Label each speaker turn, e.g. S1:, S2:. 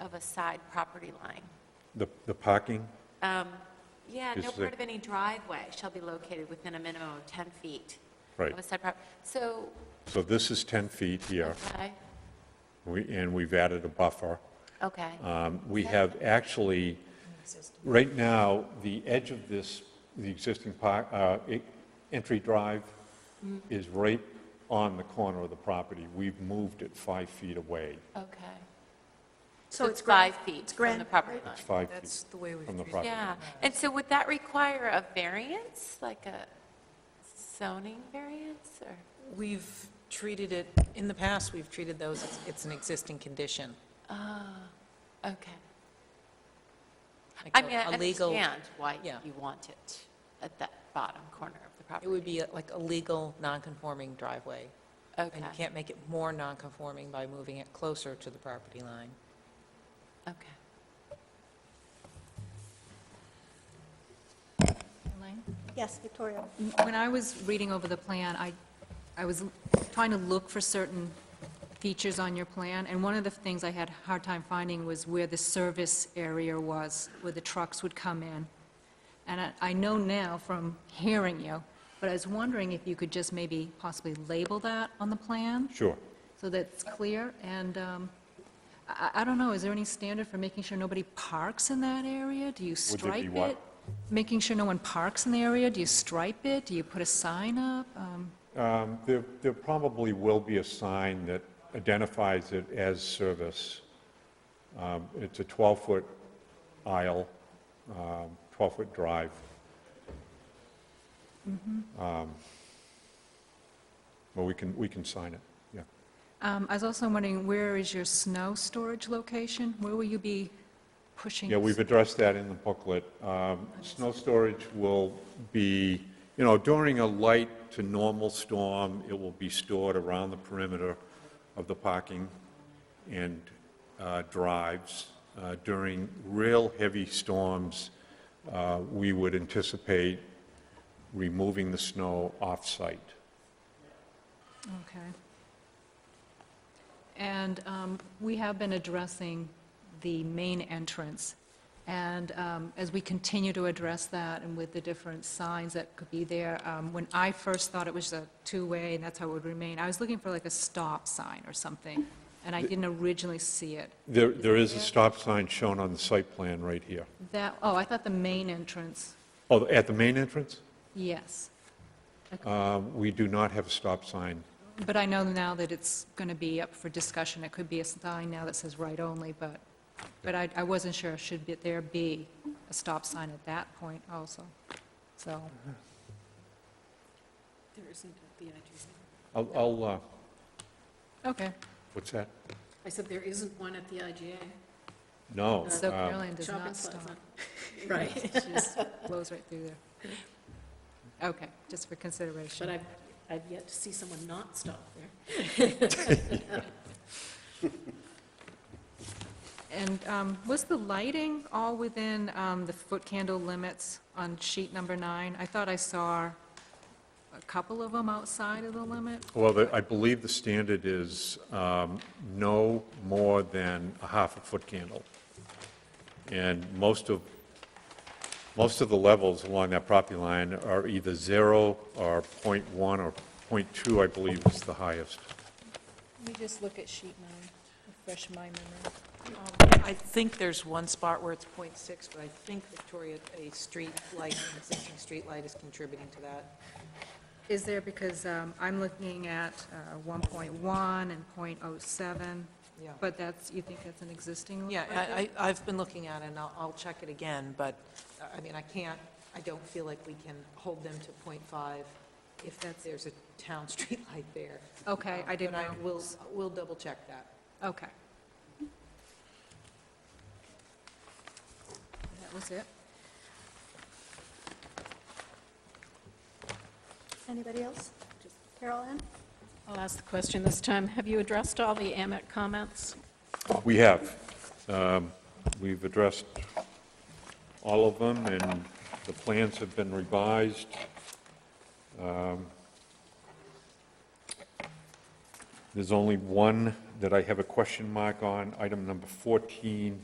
S1: of a side property line.
S2: The, the parking?
S1: Yeah, no
S2: Is the-
S1: part of any driveway shall be located within a minimum of 10 feet
S2: Right.
S1: of a side prop, so,
S2: So this is 10 feet here,
S1: okay,
S2: we- and we've added a buffer.
S1: okay,
S2: Um, We have actually, right now, the edge of this, the existing park, uh, e- entry drive
S3: Mm-hmm.
S2: is right on the corner of the property. We've moved it five feet away.
S1: okay.
S3: So it's
S1: five
S3: grand.
S1: feet from
S3: grand,
S1: the property
S3: right?
S1: line.
S2: It's five
S3: That's
S2: feet
S3: the way we
S2: from the
S3: treat it.
S2: property.
S1: Yeah, and so would that require a variance, like a zoning variance, or?
S4: We've treated it, in the past, we've treated those, it's- it's an existing condition.
S1: Okay.
S4: Ah. like
S1: I
S4: a-
S1: mean, I
S4: a legal-
S1: understand why
S4: yeah.
S1: you want it at that bottom corner of the property.
S4: It would be like a legal, non-conforming driveway. And you
S1: Okay,
S4: can't make it more non-conforming by moving it closer to the property line.
S1: okay.
S5: Elaine?
S3: Yes, Victoria.
S5: When I was reading over the plan, I, I was trying to look for certain features on your plan, and one of the things I had a hard time finding was where the service area was, where the trucks would come in. And I, I know now from hearing you, but I was wondering if you could just maybe possibly label that on the plan?
S2: Sure.
S5: So that's clear, and um, I I- I don't know, is there any standard for making sure nobody parks in that area? Do you
S2: there be
S5: stripe
S2: what?
S5: it? Making sure no one parks in the area? Do you stripe it? Do you put a sign up? Um,
S2: Um, There, there probably will be a sign that identifies it as service. Um, It's a 12-foot aisle, um, 12-foot drive. Um, Well, we can, we can sign it, yeah.
S5: um, I was also wondering, where is your snow storage location? Where will you be pushing?
S2: Yeah, we've addressed that in the booklet. Um, Snow storage will be, you know, during a light to normal storm, it will be stored around the perimeter of the parking and uh, drives. Uh, During real heavy storms, uh, we would anticipate removing the snow off-site.
S5: Okay. And um, we have been addressing the main entrance, and um, as we continue to address that and with the different signs that could be there, um, when I first thought it was a two-way and that's how it would remain, I was looking for like a stop sign or something, and I didn't originally see it.
S2: There, there is a stop sign shown on the site plan right here.
S5: That, oh, I thought the main entrance,
S2: Oh, at the main entrance?
S5: yes.
S2: Uh, We do not have a stop sign
S5: But I know now that it's going to be up for discussion. It could be a sign now that says right only, but, but I, I wasn't sure, should be- there be a stop sign at that point also? So,
S3: There isn't at the entrance.
S2: I'll- I'll, uh,
S5: okay,
S2: what's that?
S6: I said there isn't one at the IGA.
S2: No.
S5: so
S2: um,
S5: Carolyn does
S6: Shopping
S5: not stop.
S6: plaza. Right,
S5: She just blows right through there. Okay, just for
S6: but
S5: consideration.
S6: I've, I've yet to see someone not stop there.
S5: And um, was the lighting all within um, the foot candle limits on sheet number nine? I thought I saw a couple of them outside of the limit.
S2: Well, the- I believe the standard is um, no more than a half a foot candle. And most of, most of the levels along that property line are either zero or .1 or .2, I believe is the highest.
S3: Let me just look at sheet nine, refresh my memory.
S4: I think there's one spot where it's .6, but I think Victoria, a street light, an existing street light is contributing to that.
S5: Is there, because um, I'm looking at uh, 1.1 and .07,
S4: Yeah.
S5: but that's, you think that's an existing?
S4: Yeah, I, I- I've been looking at it, and I'll, I'll check it again, but, I mean, I can't, I don't feel like we can hold them to .5 if that's, there's a town street light there.
S5: Okay, I didn't
S4: But
S5: know.
S4: will, we'll double check that.
S5: Okay. That was it?
S3: Anybody else? Carol Ann?
S6: I'll ask the question this time. Have you addressed all the AMEC comments?
S2: We have. Um, We've addressed all of them, and the plans have been revised. Um, There's only one that I have a question mark on, item number 14,